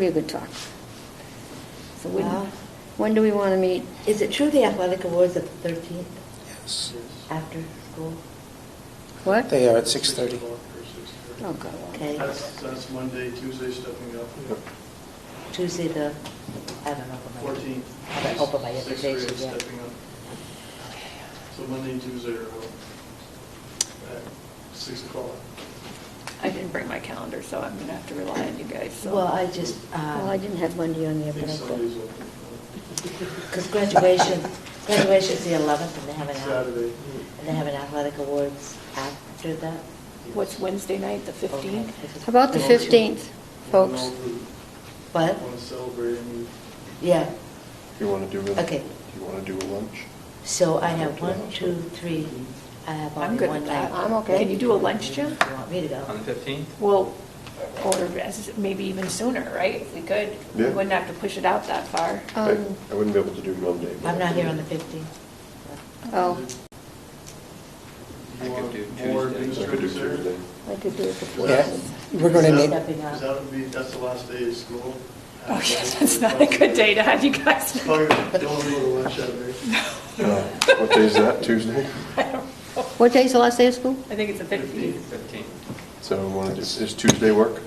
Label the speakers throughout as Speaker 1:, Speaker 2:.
Speaker 1: Be a good talk. So when,
Speaker 2: Well-
Speaker 1: when do we want to meet?
Speaker 2: Is it true the athletic awards are the 13th
Speaker 3: Yes.
Speaker 2: after school?
Speaker 1: What?
Speaker 3: They are at 6:30.
Speaker 1: Oh, God.
Speaker 2: Okay.
Speaker 4: That's, that's Monday, Tuesday, stepping up,
Speaker 2: Tuesday the, I don't know. what my-
Speaker 4: 14th.
Speaker 2: I don't open my
Speaker 4: sixth
Speaker 2: invitation
Speaker 4: grade
Speaker 2: yet.
Speaker 4: stepping up. So Monday and Tuesday are out at 6 o'clock.
Speaker 5: I didn't bring my calendar, so I'm gonna have to rely on you guys, so.
Speaker 2: Well, I just, uh,
Speaker 1: Well, Oh, I didn't have Monday on
Speaker 4: I
Speaker 1: there,
Speaker 4: think
Speaker 1: but I
Speaker 4: Sunday's
Speaker 1: could.
Speaker 4: open.
Speaker 2: because graduation, graduation's the 11th and they have an, ath-
Speaker 4: Saturday.
Speaker 2: and they have an athletic awards after that?
Speaker 5: What's Wednesday night, the 15th?
Speaker 1: How about the
Speaker 4: And also-
Speaker 1: 15th, folks?
Speaker 4: And also,
Speaker 2: What?
Speaker 4: Want to celebrate, and we
Speaker 2: Yeah,
Speaker 6: You want to do a,
Speaker 2: Okay.
Speaker 6: you want to do a lunch?
Speaker 2: so I have one, two, three, I have
Speaker 5: I'm
Speaker 2: only
Speaker 5: good
Speaker 2: one
Speaker 5: with that.
Speaker 2: night.
Speaker 1: I'm okay.
Speaker 5: Can you do a lunch, Jim?
Speaker 2: You want me to
Speaker 7: On
Speaker 2: go?
Speaker 7: the 15th?
Speaker 5: Well, or as- maybe even sooner, right? If we could, we
Speaker 6: Yeah.
Speaker 5: wouldn't have to push it out that far.
Speaker 6: I
Speaker 1: Um,
Speaker 6: I wouldn't be able to do Monday. but
Speaker 2: I'm
Speaker 6: I
Speaker 2: not
Speaker 6: could
Speaker 2: here
Speaker 6: do-
Speaker 2: on the 15th.
Speaker 1: Oh,
Speaker 7: I
Speaker 4: You
Speaker 7: could
Speaker 4: want
Speaker 7: do
Speaker 4: more
Speaker 7: Tuesday.
Speaker 6: I could do
Speaker 4: administrative service?
Speaker 6: Tuesday.
Speaker 1: I could do it the
Speaker 3: Yeah,
Speaker 1: 14th.
Speaker 3: we're going to need,
Speaker 2: Stepping up.
Speaker 4: Because that would be, that's the last day of school.
Speaker 5: Oh, yes, that's not a good day to have you guys.
Speaker 4: Probably don't go to lunch that day.
Speaker 6: Uh, What day is that, Tuesday?
Speaker 1: What day's the last day of school?
Speaker 5: I think it's the 15th.
Speaker 7: 15th.
Speaker 6: So we want to, is Tuesday work?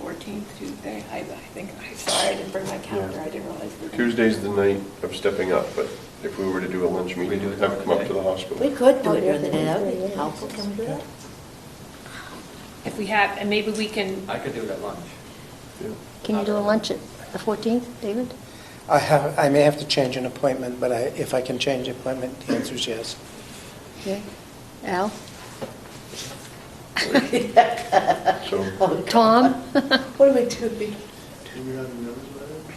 Speaker 5: 14th, Tuesday, I I think, I'm sorry, I didn't bring my calendar, I didn't realize. we were-
Speaker 6: Tuesday's the night of stepping up, but if we were to do a lunch
Speaker 7: We
Speaker 6: meeting,
Speaker 7: do it
Speaker 6: have it come up to the
Speaker 2: We
Speaker 6: hospital.
Speaker 2: could
Speaker 5: Oh,
Speaker 1: Oh,
Speaker 2: do it during the day, that would be helpful. Can we do that?
Speaker 5: If we have, and maybe we can,
Speaker 7: I could do it at lunch.
Speaker 6: Yeah.
Speaker 1: Can you do a lunch at the 14th, David?
Speaker 3: I have, I may have to change an appointment, but I, if I can change the appointment, the answer is yes.
Speaker 1: Yeah. Al?
Speaker 6: So
Speaker 2: Oh,
Speaker 1: Tom?
Speaker 2: What are we doing?
Speaker 4: Do we have a notice letter?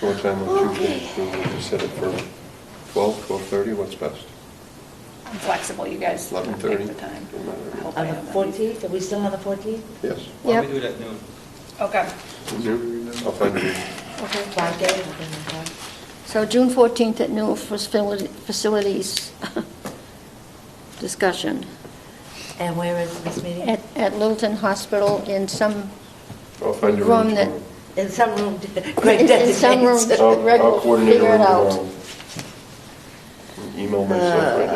Speaker 6: what time on Tuesday? So we'll just Set it for 12, 12:30, what's best?
Speaker 5: I'm flexible, you guys. uh,
Speaker 6: 11:30?
Speaker 5: Pick the time.
Speaker 6: Doesn't matter.
Speaker 5: I hope I
Speaker 2: On the
Speaker 5: am.
Speaker 2: 14th, are we still on the 14th?
Speaker 6: Yes.
Speaker 7: Why don't
Speaker 1: Yep.
Speaker 7: we do it at noon?
Speaker 5: Okay.
Speaker 6: I'll find it.
Speaker 1: Okay.
Speaker 2: Five days? I don't know.
Speaker 1: So June 14th at noon, facility- facilities discussion
Speaker 2: And where is this meeting?
Speaker 1: at at Littleton Hospital in some
Speaker 6: I'll find a
Speaker 1: Room
Speaker 6: room
Speaker 1: that-
Speaker 6: tomorrow.
Speaker 2: In some room, Greg
Speaker 1: It's in some room.
Speaker 2: designates.
Speaker 6: I'll-
Speaker 1: Greg
Speaker 6: I'll
Speaker 1: will
Speaker 6: coordinate a
Speaker 1: figure it
Speaker 6: room
Speaker 1: out.
Speaker 6: tomorrow. Email myself right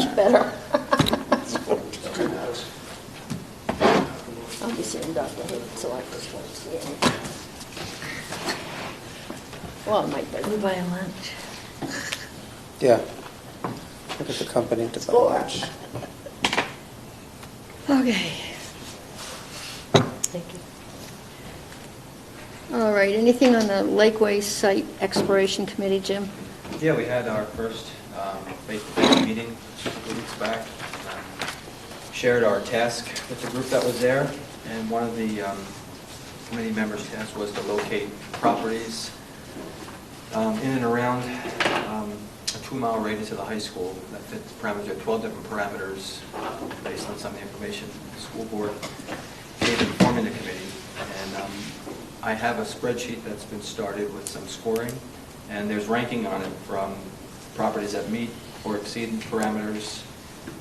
Speaker 1: You better. I'll be sitting Dr. Hood, so I just won't see it. Well, I might
Speaker 2: We
Speaker 1: better.
Speaker 2: buy lunch.
Speaker 3: Yeah. Look at the company to buy lunch.
Speaker 1: Okay.
Speaker 2: Thank you.
Speaker 1: All right, anything on the Lakeway Site Exploration Committee, Jim?
Speaker 7: Yeah, we had our first um, face-to-face meeting a couple weeks back. Um, Shared our task with the group that was there, and one of the um, committee members' task was to locate properties um, in and around um, a two-mile radius of the high school that fit the parameters, there are 12 different parameters um, based on some of the information the school board gave in forming the committee. And um, I have a spreadsheet that's been started with some scoring, and there's ranking on it from properties that meet or exceed parameters,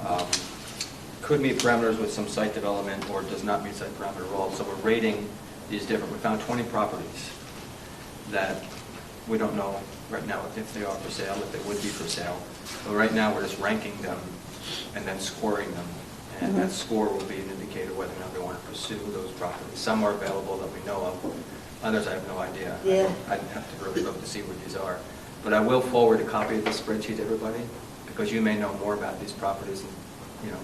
Speaker 7: um, could meet parameters with some site development, or does not meet site parameter at all. So we're rating these different, we found 20 properties that we don't know right now if they are for sale, if they would be for sale. But right now, we're just ranking them and then scoring them. And that score will be an indicator whether or not we want to pursue those properties. Some are available that we know of, others I have no idea.
Speaker 2: Yeah.
Speaker 7: I'd have to really look to see what these are. But I will forward a copy of the spreadsheet to everybody, because you may know more about these properties and, you know,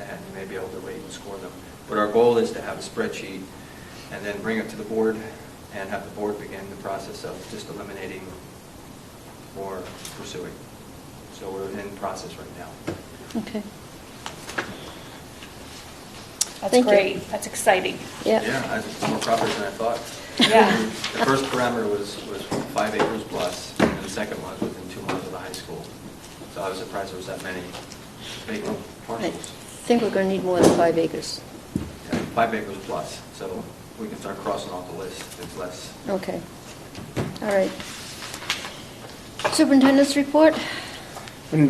Speaker 7: and you may be able to rate and score them. But our goal is to have a spreadsheet and then bring it to the board and have the board begin the process of just eliminating or pursuing. So we're in process right now.
Speaker 1: Okay.
Speaker 5: That's
Speaker 1: Thank you.
Speaker 5: great, that's exciting.
Speaker 1: Yeah,
Speaker 7: Yeah, I- more properties than I thought.
Speaker 5: Yeah.
Speaker 7: The first parameter was, was five acres plus, and the second one was within two miles of the high school. So I was surprised there was that many vacant
Speaker 1: I
Speaker 7: parcels.
Speaker 1: think we're going to need more than five acres.
Speaker 7: Yeah, Five acres plus, so we can start crossing off the list, if it's less.
Speaker 1: Okay. All right. Superintendent's report?